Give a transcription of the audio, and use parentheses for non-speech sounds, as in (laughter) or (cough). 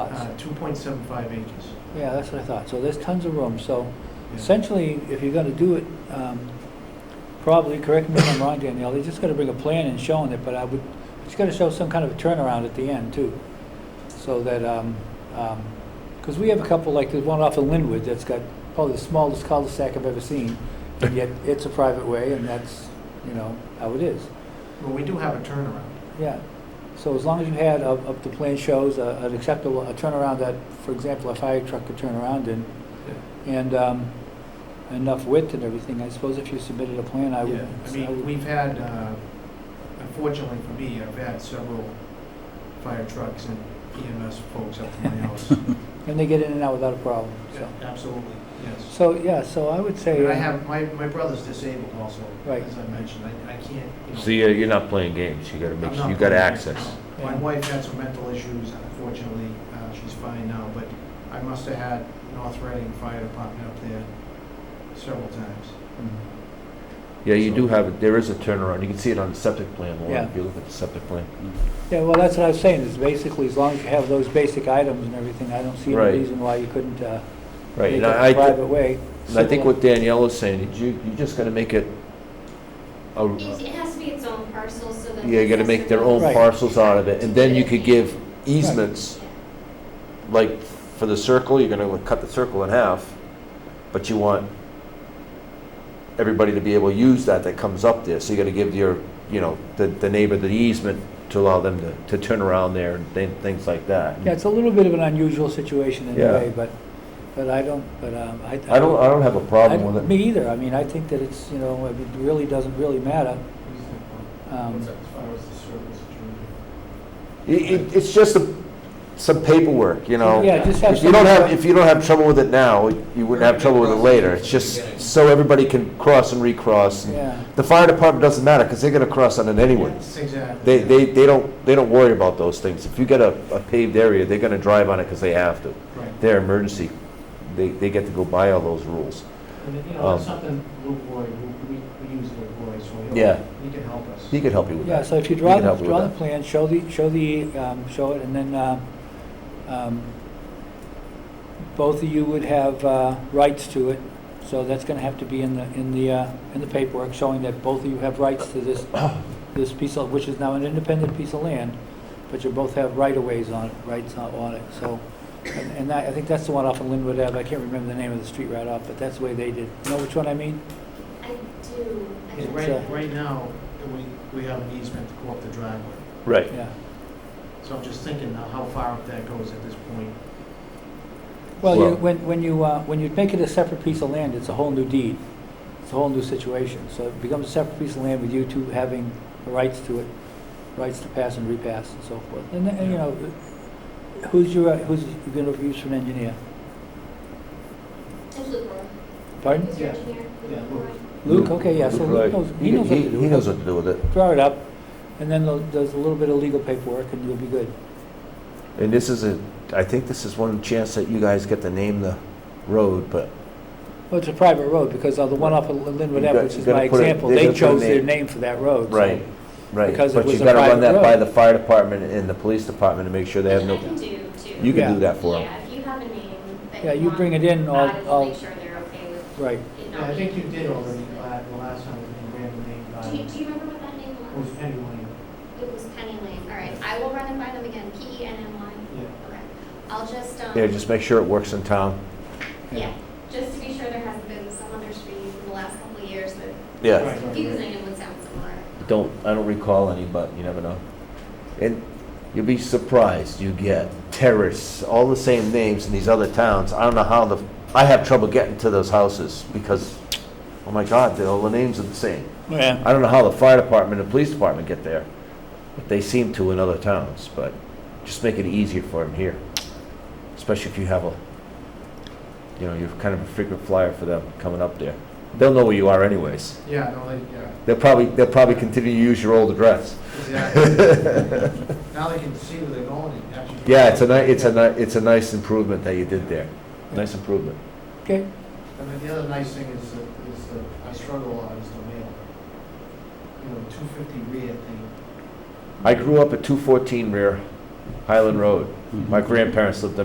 Uh, 2.75 acres. Uh, Yeah, that's what I thought. So there's tons of room. So Yeah. essentially, if you're gonna do it, um, probably, correct me if I'm wrong, Danielle, they just gotta bring a plan and showing it, but I would, it's gotta show some kind of a turnaround at the end too. So that, um, um 'cause cause we have a couple, like there's one off of Linwood that's got probably the smallest cul-de-sac I've ever seen. And yet, it's a private way and that's, you know, how it is. Well, we do have a turnaround. Yeah, so as long as you had, up, up the plan shows, a- an acceptable, a turnaround that, for example, a fire truck could turn around in, and, um, enough width and everything, I suppose if you submitted a plan, I would. Yeah, I I would- mean, we've had, uh, unfortunately for me, I've had several fire trucks and EMS folks up (laughs) to my house. And they get in and out without a problem, Yeah, so. Absolutely, yes. So, yeah, so I would say. And I uh, have, my, my brother's disabled also, Right. as I mentioned, I, I can't, you know. So you're, you're not playing games, you gotta I'm make, not you gotta going- access. no. My Yeah. wife had some mental issues, unfortunately, uh, she's fine now, but I must have had North Reading Fire Department up there several times. mm, Yeah, you do have, there is a turnaround, you can see it on the septic plan, Lauren, Yeah. if you look at the septic plan. Yeah, well, that's what I was saying, is basically, as long as you have those basic items and everything, I don't see Right. any reason why you couldn't, uh, Right, make and it I, a I- private way. uh, and I think similar- what Danielle is saying, is you, you just gotta make it a, Each- It has to be its own parcel, so that. yeah, you gotta the make their accessory- own Right. parcels out of it, and then you could give easements, like, for the circle, you're gonna cut the circle in half, but you want everybody to be able to use that that comes up there, so you gotta give your, you know, the, the neighbor the easement to allow them to, to turn around there and thi- things like that. Yeah, it's a little bit of an unusual situation in a Yeah. way, but, but I don't, but, um, I. I don't, I don't have a problem I- with it. Me either, I mean, I think that it's, you know, I mean, it really doesn't really matter. Mm. Um, As far as the service, It, it, it's just a, some paperwork, you know? Yeah, just have If you don't some- have, if you don't have trouble with it now, you wouldn't have trouble with it later. It's just so everybody can cross and recross. and- Yeah, The fire department doesn't matter, because they're gonna cross on it anyway. Exactly. They, they, they don't, they don't worry about those things. If you get a, a paved area, they're gonna drive on it because they have to. Right. They're emergency, they, they get to go by all those rules. And, you know, that's Um, something Luke Roy, we, we- we use Luke Roy, so Yeah. he'll, he can help us. He could help you with yeah, that. so if you He draw, can the help you with draw the that. plan, show the, show the, um, show it, and then, um, um, both of you would have, uh, rights to it, so that's gonna have to be in the, in the, uh, in the paperwork, showing that both of you have rights to (coughs) this, this piece of, which is now an independent piece of land, but you both have right-of-ways on it, rights on on it, so, and and I, I think that's the one off of Linwood Ave, I can't remember the name of the street right off, but that's the way they did, you know which one I mean? I do. I Yeah, do. Right, uh, right now, we, we have an easement to go up the driveway, Right. Yeah. so I'm just thinking now how far up that goes at this point. Well, you, Well- when, when you, uh, when you make it a separate piece of land, it's a whole new deed. It's a whole new situation. So it becomes a separate piece of land with you two having the rights to it, rights to pass and repass and so forth. And, then, and, you know, who's your, uh, who's you gonna use for an engineer? It's Luke Roy. Pardon? He's your Yeah. engineer. Yeah, Luke Luke. Roy. Luke, okay, yeah, so Luke Luke Wright. knows, he knows what to do. He knows what to do with it. Draw it up, and then there'll- there's a little bit of legal paperwork and you'll be good. And this is a, I think this is one chance that you guys get to name the road, but Well, it's a private road because uh, the one off of Linwood You Ave, got- which you is gotta my put it- example, they they gotta put a chose their name. name for that road. so- Right, right. Because it But was you a gotta run private that by road. the fire department and the police department to make sure they have Which I no, can do too. you Yeah. can do that for them. Yeah, if you have a name that you Yeah, you want bring it in, I'll- added, we'll I'll- Make sure they're okay with Right. it Yeah, not I think you being. did already, uh, the last time, we ran the name, Do you, uh, do you remember what that name it was? was Penny Lane, It was Penny Lane. All right, I will run it by them again, P E N N yeah. Y. Okay. I'll just, um. Yeah, just make sure it works in town. Yeah, just to be sure there hasn't been some other street in the last couple of years that's Yeah. Right, right, right. confusing and would sound similar. Don't, I don't recall any, but you never know. And you'll be surprised, you get terrorists, all the same names in these other towns. I don't know how the, I have trouble getting to those houses because, oh my God, they- all the names are the same. Yeah. I don't know how the fire department and police department get there, but they seem to in other towns, but just make it easier for them here. Especially if you have a, you know, you're kind of a frequent flyer for them coming up there. They'll know where you are anyways. Yeah, no, they, yeah, They'll probably, they'll probably continue to use your old address. (laughs) exactly. Now they can see where they're going and actually. Yeah, it's a ni, it's a ni, it's a nice improvement that you did there. Nice improvement. Okay, And then the other nice thing is, that- is that I struggle a lot is the mail. You know, two fifty rear thing, I grew up at two fourteen rear Highland Road. My grandparents lived